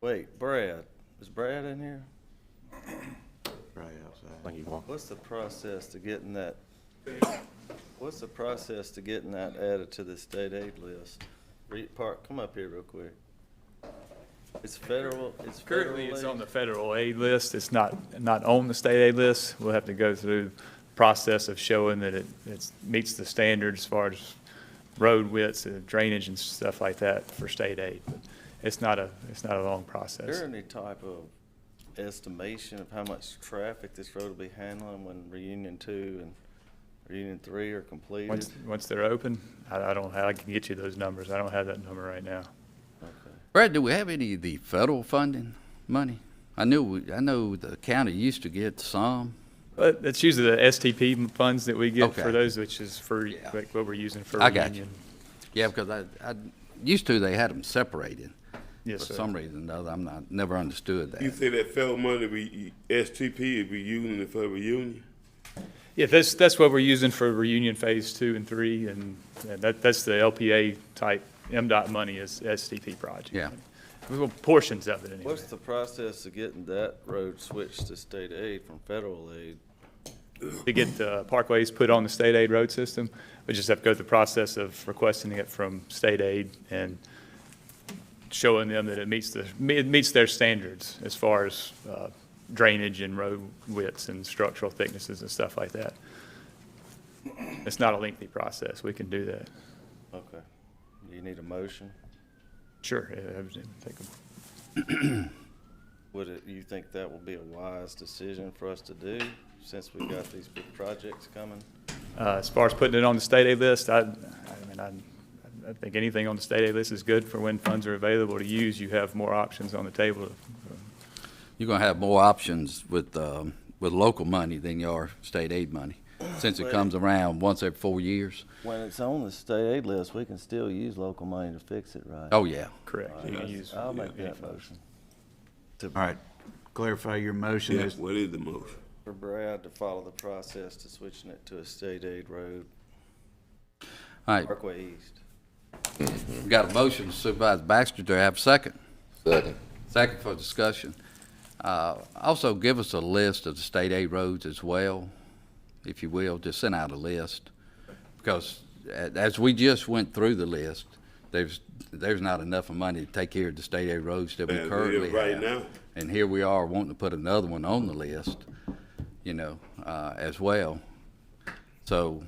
Wait, Brad, is Brad in here? Right outside. think he walked. What's the process to getting that, what's the process to getting that added to the state aid list? Reed Park, come up here real quick. It's federal, it's federal Currently, it's aid. on the federal aid list. It's not, not on the state aid list. We'll have to go through the process of showing that it, it meets the standards as far as road widths and drainage and stuff like that for state aid. But It's not a, it's not a long Is process. there any type of estimation of how much traffic this road will be handling when reunion two and reunion three are completed? Once, once they're open, I, I don't, have- I can get you those numbers. I don't have that number right now. Okay. Brad, do we have any of the federal funding money? I knew, we- I know the county used to get some. But that's usually the STP funds that we get for Okay. those, which is for, Yeah. like, what we're using for I got you. reunion. Yeah, because I, I, used to, they had them separated. Yes, For sir. some reason or another, I'm not, never understood You that. say that federal money be STP, it be using it for reunion? Yeah, that's, that's what we're using for reunion phase two and three, and and that, that's the LPA type, MDOT money is STP project. Yeah. Well, portions of it anyway. What's the process of getting that road switched to state aid from federal aid? To get the parkways put on the state aid road system, we just have to go through the process of requesting it from state aid and showing them that it meets the, it meets their standards as far as uh, drainage and road widths and structural thicknesses and stuff like that. It's not a lengthy process. We can do that. Okay. Do you need a motion? Sure. I- I would think of- Would it, you think that will be a wise decision for us to do, since we've got these big projects coming? Uh, As far as putting it on the state aid list, I, I mean, I, I think anything on the state aid list is good for when funds are available to use. You have more options on the table. You're gonna have more options with, um, with local money than you are state aid money, since it Well- comes around once every four years. When it's on the state aid list, we can still use local money to fix it, right? Oh, yeah. Correct. You can use I'll make any that funds. motion. All right, clarify your motion. Yeah, Is- What is the motion? For Brad to follow the process to switching it to a state aid road, All right, Parkway East. we got a motion to Supervisor Baxter. Do I have a second? Second. Second for discussion. Uh, Also, give us a list of the state aid roads as well, if you will, just send out a list. Because a- as we just went through the list, there's, there's not enough money to take care of the state aid roads that we As it is currently have. right now. And here we are wanting to put another one on the list, you know, uh, as well. So,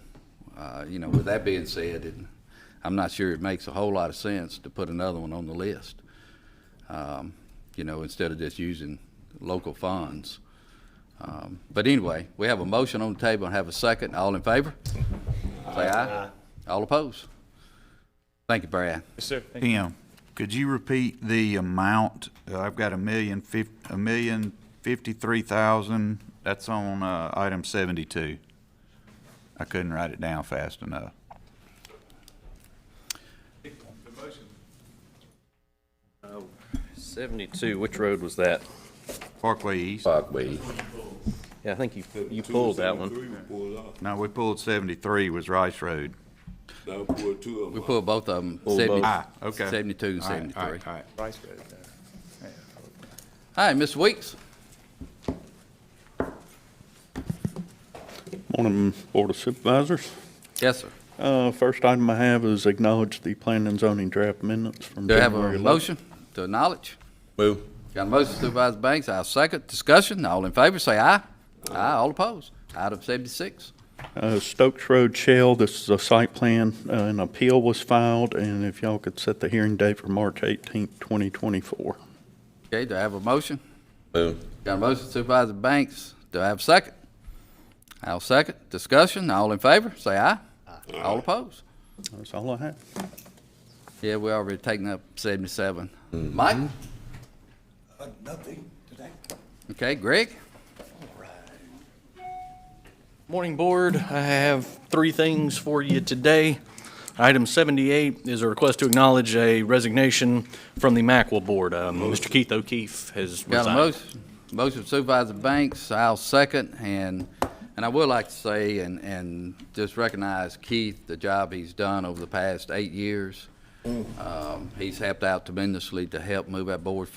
uh, you know, with that being said, it- I'm not sure it makes a whole lot of sense to put another one on the list you know, instead of just using local funds. Um, But anyway, we have a motion on the table and have a second. All in favor? Say aye. All opposed? Thank you, Brad. Yes, sir. Thank you. Tim, could you repeat the amount? Uh, I've got a million fif, a million fifty-three thousand, that's on, uh, item seventy-two. I couldn't write it down fast enough. Seventy-two, which road was that? Parkway East, Fogway. Yeah, I think you, you pulled that one. Two, seven, three, we pulled off. no, we pulled seventy-three was Rice Road. Now we pulled two of them We off. pulled both of them, Pulled both. Ah, okay. 72 and All right, 73. all All right, all right. Rice Road, uh, right, Mr. Weeks? Morning, Board of Supervisors. Yes, sir. Uh, First item I have is acknowledge the planning and zoning draft amendments from Do I have January a 11th. motion to acknowledge? Move. Got a motion Supervisor Banks, I'll second. Discussion, all in favor, say aye. Aye, all opposed. Item 76. Uh, Stokes Road Shell, this is a site plan, uh, an appeal was filed, and if y'all could set the hearing date for March 18th, 2024. Okay, do I have a motion? Move. Got a motion Supervisor Banks. Do I have a second? I'll second. Discussion, all in favor, say aye. All opposed? That's all I have. Yeah, we already taken up seventy-seven. Mike? Nothing today. Okay, Greg? Morning, Board. I have three things for you today. Item 78 is a request to acknowledge a resignation from the Mackwell Board. Um, Mr. Keith O'Keefe has Got a resigned. motion, motion Supervisor Banks, I'll second, and, and I would like to say, and, and just recognize Keith, the job he's done over the past eight years. Um, he's helped out tremendously to help move our board